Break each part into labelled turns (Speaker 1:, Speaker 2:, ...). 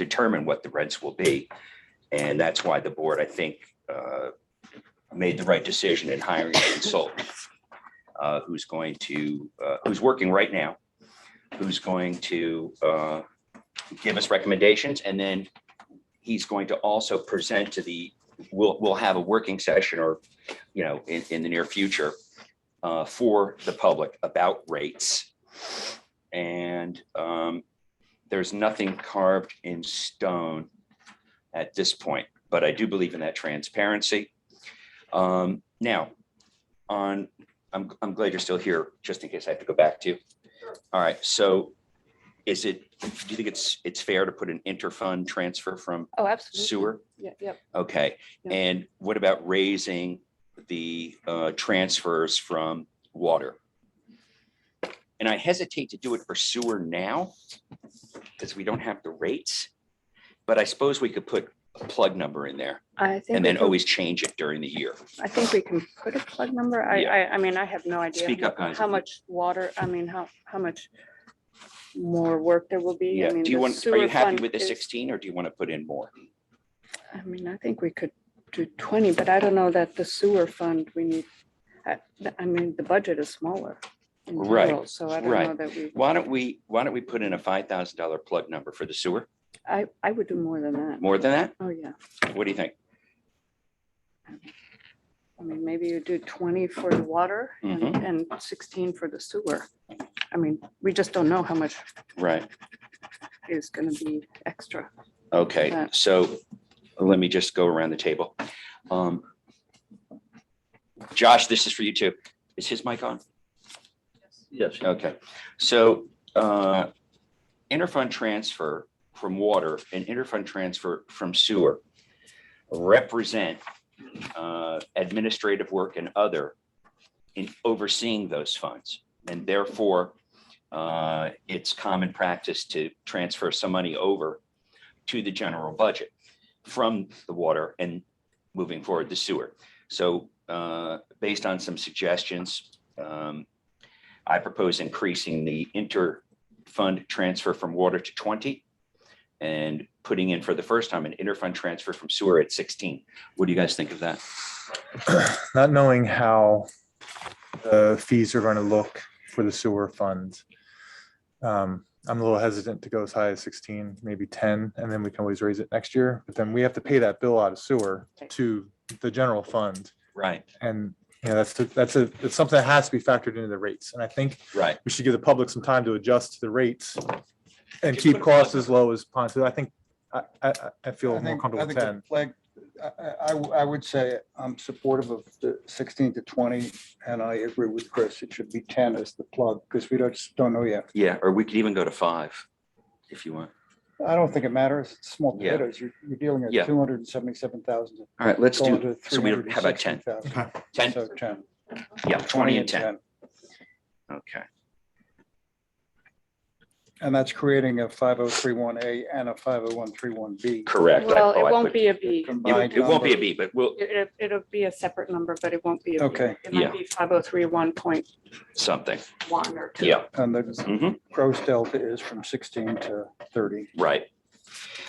Speaker 1: determine what the rents will be. And that's why the board, I think, uh, made the right decision in hiring a consultant uh, who's going to, uh, who's working right now, who's going to uh, give us recommendations, and then he's going to also present to the, we'll, we'll have a working session or, you know, in, in the near future uh, for the public about rates. And um, there's nothing carved in stone at this point, but I do believe in that transparency. Um, Now, on, I'm, I'm glad you're still here, just in case I have to go back to you. All right, so is it, do you think it's, it's fair to put an interfund transfer from
Speaker 2: Oh, absolutely.
Speaker 1: sewer?
Speaker 2: Yeah, yep.
Speaker 1: Okay,
Speaker 2: Yeah.
Speaker 1: and what about raising the uh, transfers from water? And I hesitate to do it for sewer now, because we don't have the rates. But I suppose we could put a plug number in there
Speaker 2: I think.
Speaker 1: and
Speaker 2: we
Speaker 1: then
Speaker 2: can-
Speaker 1: always change it during the year.
Speaker 2: I think we can put a plug number. I,
Speaker 1: Yeah.
Speaker 2: I, I mean, I have no idea.
Speaker 1: Speak
Speaker 2: how-
Speaker 1: up, guys,
Speaker 2: How
Speaker 1: if you-
Speaker 2: much water, I mean, how, how much more work there will be. I
Speaker 1: Yeah,
Speaker 2: mean,
Speaker 1: do you
Speaker 2: the
Speaker 1: want, are
Speaker 2: sewer
Speaker 1: you happy
Speaker 2: fund
Speaker 1: with the
Speaker 2: is-
Speaker 1: sixteen or do you want to put in more?
Speaker 2: I mean, I think we could do twenty, but I don't know that the sewer fund, we need, I, I mean, the budget is smaller. in
Speaker 1: Right,
Speaker 2: general, So I don't
Speaker 1: right.
Speaker 2: know that we,
Speaker 1: Why don't we, why don't we put in a five thousand dollar plug number for the sewer?
Speaker 2: I, I would do more than that.
Speaker 1: More than that?
Speaker 2: Oh, yeah.
Speaker 1: What do you think?
Speaker 2: I mean, maybe you do twenty for the water and
Speaker 1: Mhm.
Speaker 2: and sixteen for the sewer. I mean, we just don't know how much
Speaker 1: Right.
Speaker 2: is gonna be extra.
Speaker 1: Okay,
Speaker 2: Yeah.
Speaker 1: so let me just go around the table. Um, Josh, this is for you too. Is his mic on?
Speaker 3: Yes.
Speaker 1: Okay, so uh, interfund transfer from water and interfund transfer from sewer represent uh, administrative work and other in overseeing those funds. And therefore, uh, it's common practice to transfer some money over to the general budget from the water and moving forward the sewer. So uh, based on some suggestions, um, I propose increasing the inter-fund transfer from water to 20 and putting in for the first time an inter-fund transfer from sewer at 16. What do you guys think of that?
Speaker 4: not knowing how the fees are going to look for the sewer fund. um, I'm a little hesitant to go as high as 16, maybe 10, and then we can always raise it next year. But then we have to pay that bill out of sewer to the general fund.
Speaker 1: Right,
Speaker 4: And, you know, that's, that's a, it's something that has to be factored into the rates. And I think
Speaker 1: right.
Speaker 4: we should give the public some time to adjust to the rates and
Speaker 1: Just
Speaker 4: keep
Speaker 1: put a plug
Speaker 4: costs as low as possible. I think, I, I, I- I
Speaker 5: I
Speaker 4: feel more
Speaker 5: think, I
Speaker 4: comfortable with
Speaker 5: think the
Speaker 4: 10.
Speaker 5: flag, I, I- I w- I would say I'm supportive of the sixteen to twenty, and I agree with Chris, it should be ten as the plug, because we don't, just don't know yet.
Speaker 1: Yeah, or we could even go to five if you want.
Speaker 5: I don't think it matters, it's small
Speaker 1: Yeah.
Speaker 5: potatoes, you're, you're dealing
Speaker 1: Yeah.
Speaker 5: at two hundred and seventy-seven thousand.
Speaker 1: All right, let's do, so we have about 10, 10,
Speaker 5: So ten.
Speaker 1: yeah, 20 and 10. Okay,
Speaker 5: And that's creating a five oh three one A and a five oh one three one B.
Speaker 1: correct. I-
Speaker 2: Well,
Speaker 1: oh,
Speaker 2: it
Speaker 1: I
Speaker 2: won't
Speaker 1: put-
Speaker 2: be a B.
Speaker 1: It
Speaker 5: combined
Speaker 1: it won't be a
Speaker 5: number.
Speaker 1: B, but we'll,
Speaker 2: It, it'll be a separate number, but it won't be. a B.
Speaker 5: Okay.
Speaker 2: It
Speaker 1: Yeah.
Speaker 2: might be five oh three one point
Speaker 1: something,
Speaker 2: one or two.
Speaker 1: yeah.
Speaker 5: And the
Speaker 1: mhm.
Speaker 5: gross delta is from sixteen to thirty.
Speaker 1: Right.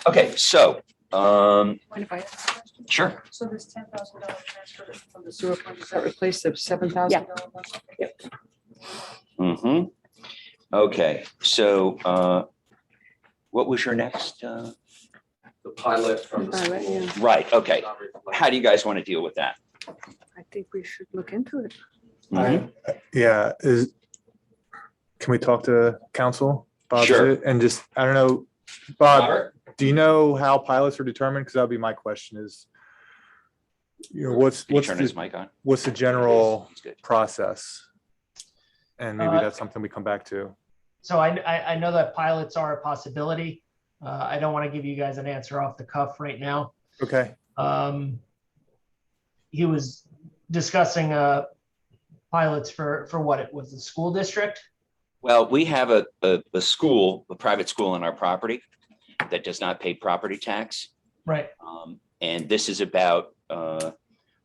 Speaker 1: Okay, so, um,
Speaker 6: Mind if I ask a question?
Speaker 1: sure,
Speaker 6: So this ten thousand dollar transfer from the sewer fund, does that replace the seven thousand dollar one?
Speaker 1: Mm-hmm. Okay, so uh, what was your next? uh,
Speaker 3: The pilot from the
Speaker 2: Pilot,
Speaker 3: school.
Speaker 2: yeah.
Speaker 1: Right, okay. How do you guys want to deal with that?
Speaker 2: I think we should look into it.
Speaker 1: Mhm.
Speaker 4: Yeah, is, can we talk to council? Bob, is
Speaker 1: Sure.
Speaker 4: it? And just, I don't know, Bob,
Speaker 1: Robert?
Speaker 4: do you know how pilots are determined? Because that'd be my question is, you know, what's,
Speaker 1: Can you
Speaker 4: what's,
Speaker 1: turn his
Speaker 4: the-
Speaker 1: mic on?
Speaker 4: what's the general
Speaker 1: He's good.
Speaker 4: process? And maybe
Speaker 7: Uh,
Speaker 4: that's something we come back to.
Speaker 7: So I, I, I know that pilots are a possibility. Uh, I don't want to give you guys an answer off the cuff right now.
Speaker 4: Okay,
Speaker 7: Um, he was discussing, uh, pilots for, for what it was, the school district?
Speaker 1: Well, we have a, a, a school, a private school on our property that does not pay property tax.
Speaker 7: Right.
Speaker 1: Um, And this is about uh,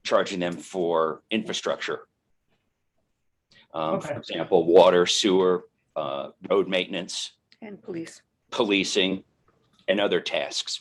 Speaker 1: charging them for infrastructure. Um, For
Speaker 7: Okay.
Speaker 1: example, water, sewer, uh, road maintenance.
Speaker 2: And police.
Speaker 1: policing, and other tasks.